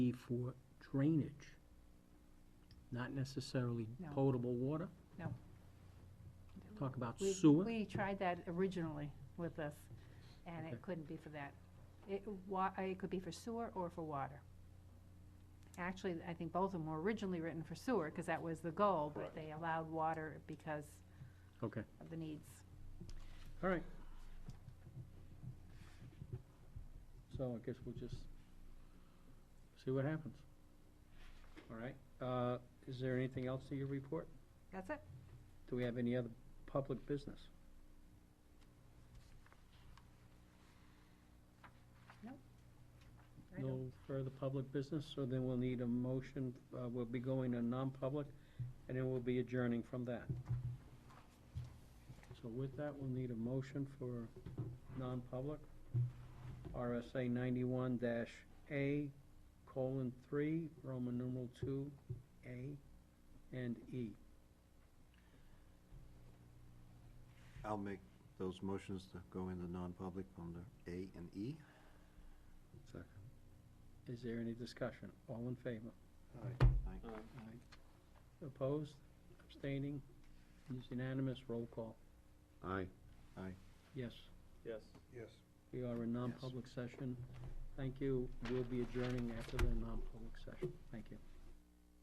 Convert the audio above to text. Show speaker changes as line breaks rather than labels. be for drainage, not necessarily
No.
potable water.
No.
Talk about
We-
sewer.
We tried that originally with this, and
Okay.
it couldn't be for that. It, wa, uh, it could be for sewer or for water. Actually, I think both of them were originally written for sewer, because that was the goal, but
Correct.
they allowed water because
Okay,
of the needs.
all right. So I guess we'll just see what happens. All right, uh, is there anything else to your report?
That's it.
Do we have any other public business?
I don't-
No further public business, so then we'll need a motion, uh, we'll be going to non-public, and then we'll be adjourning from that. So with that, we'll need a motion for non-public, RSA ninety-one dash A, colon, three, Roman numeral two, A, and E.
I'll make those motions to go into non-public under A and E. Second.
Is there any discussion? All in favor?
Aye.
Aye. Opposed, abstaining, It's unanimous, roll call,
Aye.
yes.
Yes.
We are in non-public session. Thank you. We'll be adjourning after the non-public session. Thank you.